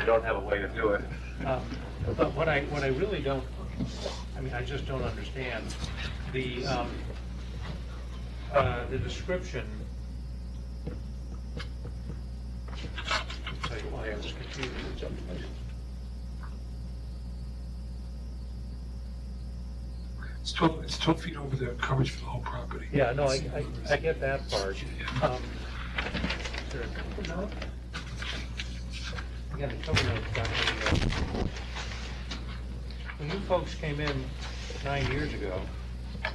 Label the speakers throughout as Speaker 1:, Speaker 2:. Speaker 1: I don't have a way to do it.
Speaker 2: Um, But what I, what I really don't, I mean, I just don't understand, the, um, uh, the description. I'll tell you why I was confused.
Speaker 3: It's 12, it's 12 feet over the coverage for the whole property.
Speaker 2: Yeah, no, I, I, I get that part. Um, Is there a cover note? Again, the cover note's not really, uh, When you folks came in nine years ago,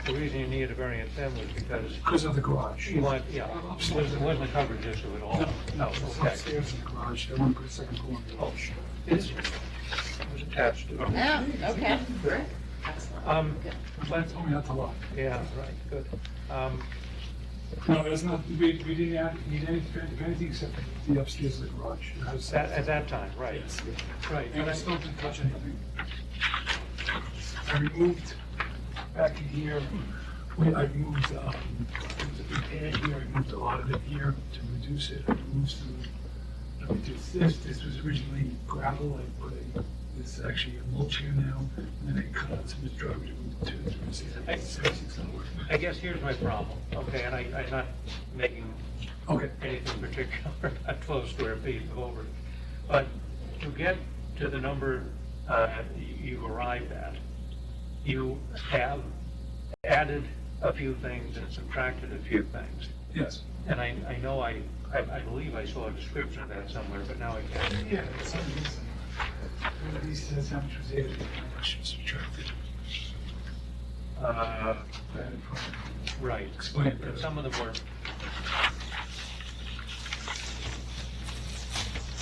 Speaker 2: the reason you needed a variance then was because
Speaker 3: Because of the garage.
Speaker 2: You want, yeah, it wasn't, it wasn't a coverage issue at all.
Speaker 3: No,
Speaker 2: No,
Speaker 3: no, it's
Speaker 2: okay.
Speaker 3: upstairs in the garage, they want to put a second floor in the
Speaker 2: Oh,
Speaker 3: garage.
Speaker 2: It's- It was attached to it.
Speaker 4: Oh, okay, great. Excellent.
Speaker 2: Um,
Speaker 3: That's only not the lot.
Speaker 2: yeah, right, good. Um,
Speaker 3: No, there's not, we, we didn't add- need any, anything except the upstairs of the garage. And that's-
Speaker 2: at, at that time, right,
Speaker 3: Yes.
Speaker 2: right.
Speaker 3: And I still didn't touch anything. I removed back in here, wait, I removed, uh, there was a big pad here, I removed a lot of it here to reduce it, I removed some, I reduced this, this was originally gravel, I put a, this is actually a mulch here now, and then I cut out some of the driveway to move to, to see if
Speaker 2: I-
Speaker 3: it's, it's not working.
Speaker 2: I guess here's my problem, okay, and I, I'm not making
Speaker 3: Okay,
Speaker 2: anything particular about twelve square feet of over. But to get to the number, uh, you arrived at, you have added a few things and subtracted a few things.
Speaker 3: yes.
Speaker 2: And I, I know I, I I believe I saw a description of that somewhere, but now I can't.
Speaker 3: Yeah, it's on this. One of these says how much was added, how much was subtracted.
Speaker 2: Uh,
Speaker 3: Added from-
Speaker 2: Right.
Speaker 3: Explain it.
Speaker 2: And Some of them were.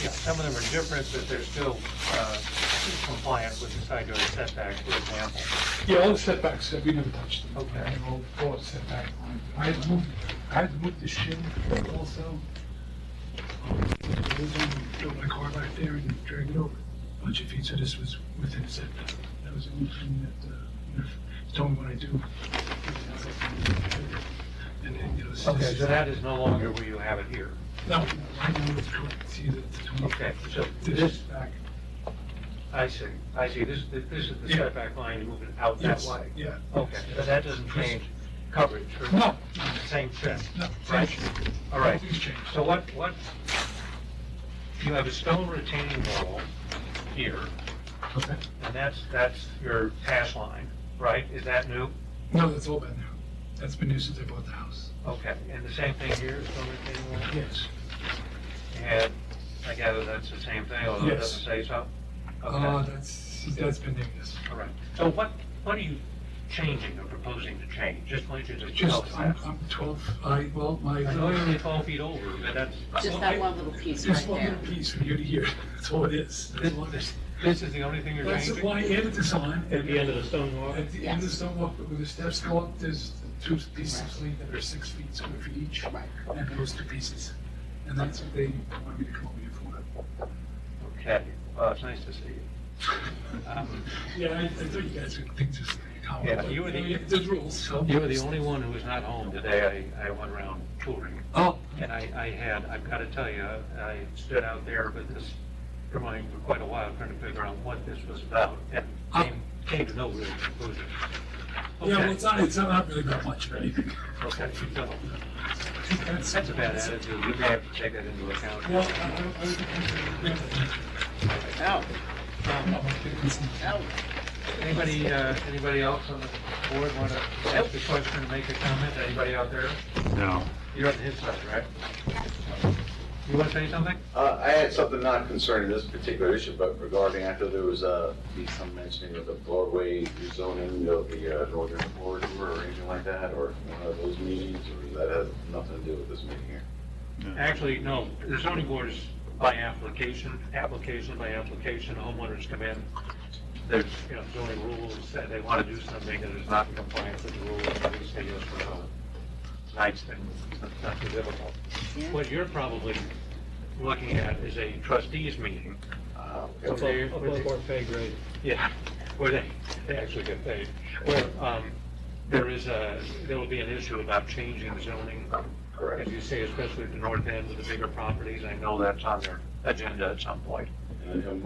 Speaker 2: Yeah, some of them are different, but they're still uh, compliant with the side yard setback, for example.
Speaker 3: Yeah, all the setbacks, uh, we never touched them.
Speaker 2: Okay.
Speaker 3: And all, all the setback. lines. I had moved, I had moved the shed also. I was on, built my car back there and dragged it over a bunch of feet, so this was within setback. That was the only thing that, uh, you know, he told me what I do. And then, you know, this
Speaker 2: Okay, so that is no longer where you have it here.
Speaker 3: No, I know it's correct, see the the twenty.
Speaker 2: Okay, so
Speaker 3: This
Speaker 2: this-
Speaker 3: back.
Speaker 2: I see, I see, this, this is the
Speaker 3: Yeah.
Speaker 2: setback line moving out that
Speaker 3: Yes,
Speaker 2: way.
Speaker 3: Yeah.
Speaker 2: Okay, but that doesn't change coverage for
Speaker 3: No,
Speaker 2: same shed.
Speaker 3: no,
Speaker 2: Right.
Speaker 3: thank you.
Speaker 2: All right,
Speaker 3: Nothing's changed.
Speaker 2: so what, what, you have a stone retaining wall here,
Speaker 3: Okay.
Speaker 2: and that's, that's your pass line, right? Is that new?
Speaker 3: No, that's all been there. That's been there since I bought the house.
Speaker 2: Okay, and the same thing here, stone retaining wall?
Speaker 3: Yes.
Speaker 2: And I gather that's the same thing, although it
Speaker 3: Yes.
Speaker 2: doesn't say so?
Speaker 3: Uh,
Speaker 2: Okay,
Speaker 3: that's, that's been there, yes.
Speaker 2: all right. So what, what are you changing or proposing to change? Just want you to tell
Speaker 3: Just,
Speaker 2: us
Speaker 3: I'm,
Speaker 2: that.
Speaker 3: I'm twelve, I, well, my.
Speaker 2: I know you're only twelve feet over, but that's.
Speaker 4: Just that one little piece
Speaker 3: It's
Speaker 4: right
Speaker 3: one
Speaker 4: there.
Speaker 3: little piece from here to here. That's all it is. That's all it is.
Speaker 2: This is the only thing you're
Speaker 3: That's
Speaker 2: changing?
Speaker 3: why I added this on.
Speaker 5: At the end of the stone wall?
Speaker 3: At the end of the stone walk, where the steps go up, there's two pieces of slate that are six feet square feet each. And those two pieces. And that's what they wanted me to come over here for.
Speaker 2: Okay, well, it's nice to see you. Um,
Speaker 3: Yeah, I, I thought you guys would think this.
Speaker 2: Yeah, you were the-
Speaker 3: There's rules, so.
Speaker 2: You were the only one who was not home today. I, I went around touring,
Speaker 3: Oh,
Speaker 2: and I, I had, I've got to tell you, I stood out there with this drawing for quite a while, trying to figure out what this was about, and came, came to no real conclusion.
Speaker 3: yeah, well,
Speaker 2: Okay.
Speaker 3: it's not, it's not really that much of anything.
Speaker 2: Okay, so, that's a bad attitude. You may have to take that into
Speaker 3: Well,
Speaker 2: account.
Speaker 3: I, I, I, yeah.
Speaker 4: Oh,
Speaker 3: I'm
Speaker 2: Um,
Speaker 3: not gonna do something.
Speaker 4: oh,
Speaker 2: Anybody, uh, anybody else on the board want to ask a question, make a comment? Anybody out there?
Speaker 1: No.
Speaker 2: You're on his side, right? You want to say something?
Speaker 6: Uh, I had something not concerning this particular issue, but regarding, I thought there was, uh, be some mentioning of the Broadway rezoning of the uh, Northern Corridor or anything like that, or one of those meetings, or that has nothing to do with this meeting here.
Speaker 2: Actually, no, the zoning board is by application, application by application, homeowners come in, there's, you know, zoning rules, that they want to do something that is not in compliance with the rules, and we say yes or no. Nice thing, it's not too difficult.
Speaker 4: Yeah.
Speaker 2: What you're probably looking at is a trustees meeting.
Speaker 6: Uh,
Speaker 2: So
Speaker 6: okay.
Speaker 2: they-
Speaker 5: Above our pay grade.
Speaker 2: Yeah, where they, they actually get paid. Where, um, there is a, there will be an issue about changing zoning.
Speaker 6: Correct.
Speaker 2: As you say, especially at the north end with the bigger properties, I know that's on their agenda at some point.
Speaker 6: and and